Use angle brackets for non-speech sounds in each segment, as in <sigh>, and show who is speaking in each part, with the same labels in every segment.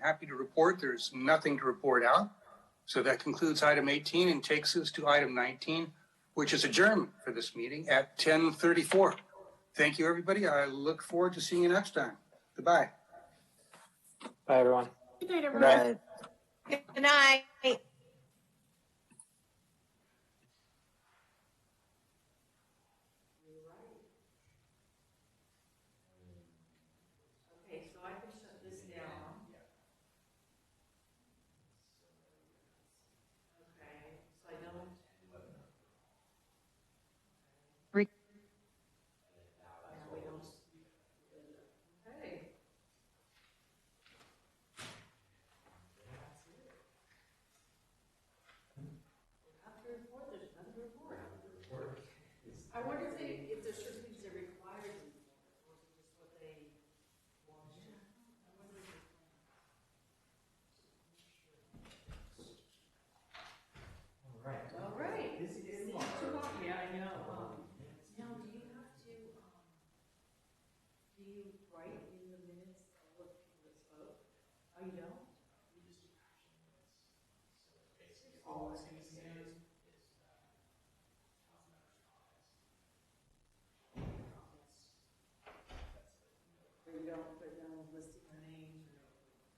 Speaker 1: happy to report there's nothing to report out. So that concludes item 18 and takes us to item 19, which is adjourned for this meeting at 10:34. Thank you, everybody. I look forward to seeing you next time. Goodbye.
Speaker 2: Bye, everyone.
Speaker 3: Good night, everyone.
Speaker 4: Good night.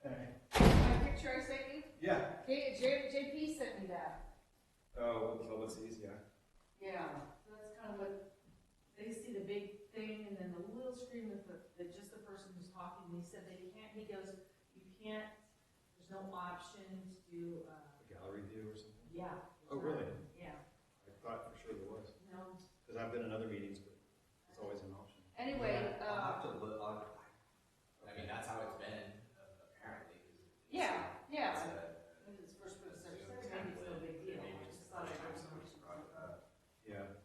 Speaker 3: My picture I sent you,
Speaker 5: Yeah.
Speaker 3: J, J, JP sent me that.
Speaker 5: Oh, Ulysses, yeah.
Speaker 3: Yeah, so that's kind of what, they see the big thing and then the little screen with the, the, just the person who's talking, and he said that you can't, he goes, you can't, there's no option to do, uh,
Speaker 5: A gallery view or something.
Speaker 3: yeah.
Speaker 5: Oh, really?
Speaker 3: Yeah,
Speaker 5: I thought for sure there was,
Speaker 3: no,
Speaker 5: because I've been in other meetings, but it's always an option.
Speaker 3: anyway,
Speaker 6: I'll
Speaker 3: uh,
Speaker 6: have to look on, I mean, that's how it's been, uh, apparently. 'cause it's-
Speaker 3: yeah, yeah.
Speaker 6: It's a
Speaker 3: When it's first put
Speaker 6: it's a
Speaker 3: up, uh, it's no
Speaker 6: template,
Speaker 3: big deal.
Speaker 6: maybe
Speaker 3: I
Speaker 6: just
Speaker 3: just
Speaker 6: the
Speaker 3: thought I'd
Speaker 6: first time
Speaker 3: bring some-
Speaker 6: someone's brought it up.
Speaker 5: Yeah.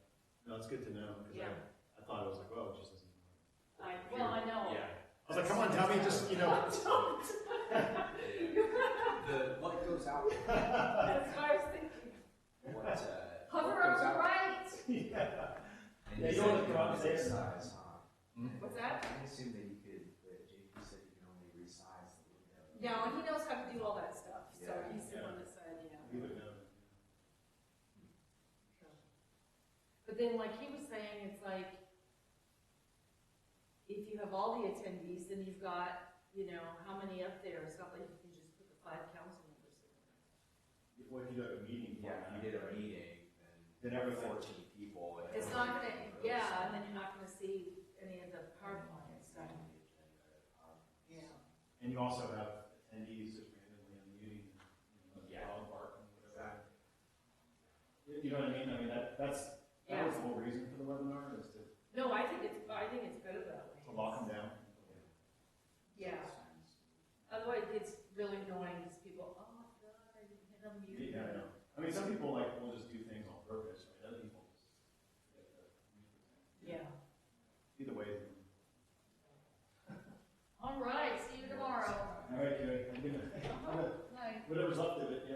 Speaker 5: No, it's good to know, because
Speaker 3: Yeah.
Speaker 5: I, I thought it was like, well, it just isn't.
Speaker 3: I, well, I know.
Speaker 6: Yeah.
Speaker 5: I was like, come on, dummy, just, you
Speaker 3: <laughs>
Speaker 5: know.
Speaker 6: <laughs>
Speaker 5: <laughs>
Speaker 6: The, what goes out, what,
Speaker 3: That's what I was <laughs> thinking.
Speaker 6: uh. what goes
Speaker 3: Hover up
Speaker 6: out-
Speaker 3: to right.
Speaker 5: Yeah. Yeah,
Speaker 6: and they
Speaker 5: you
Speaker 6: said
Speaker 5: wanna
Speaker 6: can
Speaker 5: go out
Speaker 6: only
Speaker 5: there.
Speaker 6: resize, huh?
Speaker 3: What's that?
Speaker 6: I assume that you could, that JP said you can only resize the window.
Speaker 3: No, and he knows how to do all that stuff, so
Speaker 6: Yeah,
Speaker 3: he's the
Speaker 5: yeah.
Speaker 3: one that said, yeah.
Speaker 5: You would know.
Speaker 3: But then, like he was saying, it's like, if you have all the attendees, then you've got, you know, how many up there, it's not like you can just put the five council members in there.
Speaker 5: What if you do like a meeting?
Speaker 6: Yeah, if you did a meeting,
Speaker 5: Then
Speaker 6: then
Speaker 5: everything-
Speaker 6: fourteen people. and
Speaker 3: It's not gonna,
Speaker 6: everything goes
Speaker 3: yeah,
Speaker 6: on
Speaker 3: and then you're not gonna see any of the PowerPoint and
Speaker 6: the
Speaker 3: stuff,
Speaker 6: agenda, um,
Speaker 3: yeah.
Speaker 5: And you also have attendees just randomly on the meeting. you know,
Speaker 6: Yeah.
Speaker 5: dog barking, whatever. You- You know what I mean? I mean, that, that's, that
Speaker 3: Yeah.
Speaker 5: was the whole reason for the webinar, is to
Speaker 3: No, I think it's, I think it's better that way.
Speaker 5: to lock them down.
Speaker 3: Yeah, otherwise it gets really annoying, because people, oh my god, I didn't hit on mute.
Speaker 5: Yeah, I know. I mean, some people like will just do things on purpose, right? Other people just.
Speaker 3: Yeah.
Speaker 5: Either way.
Speaker 3: All right, see you tomorrow.
Speaker 5: All right, Gary, I'm gonna, I'm gonna, <laughs>
Speaker 3: Night.
Speaker 5: whatever's left of it, yeah.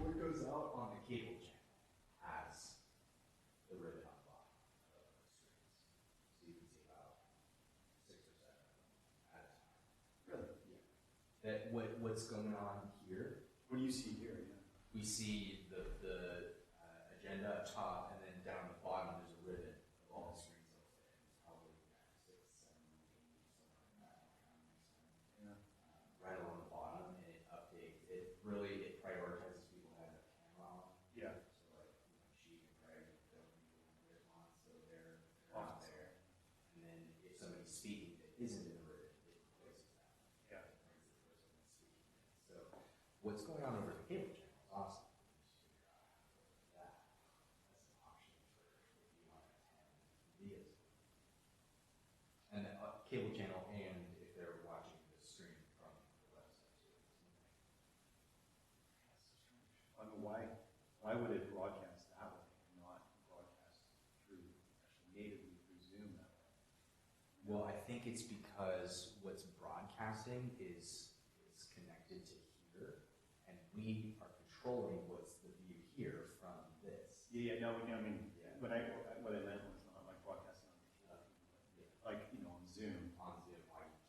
Speaker 6: What goes out on the cable channel has the ribbon on the bottom of the strings. So you can see about six or seven of them at a time. Really? Yeah. That what, what's going on here,
Speaker 5: What do you see here? Yeah.
Speaker 6: we see the, the uh, agenda up top and then down the bottom, there's a ribbon of all the strings. up there. It's probably six, seven, eight, something like that.
Speaker 5: Yeah.
Speaker 6: Uh, Right along the bottom and it updates, it really, it prioritizes people who have their camera on.
Speaker 5: Yeah.
Speaker 6: So like, you know, she and Craig don't really wear on, so they're they're
Speaker 5: Off.
Speaker 6: not there. And then if somebody's speaking that isn't in the room, it replaces that.
Speaker 5: Yeah.
Speaker 6: It brings the person that's speaking in. So what's going on over the cable channel is awesome. That- That's an option for if you want to have videos. And the uh, cable channel and if they're watching the stream from the website. too.
Speaker 5: I mean, why, why would it broadcast that way and not broadcast through, actually natively through Zoom that way?
Speaker 6: Well, I think it's because what's broadcasting is is connected to here, and we are controlling what's the view here from this.
Speaker 5: Yeah, yeah, no, we- I mean,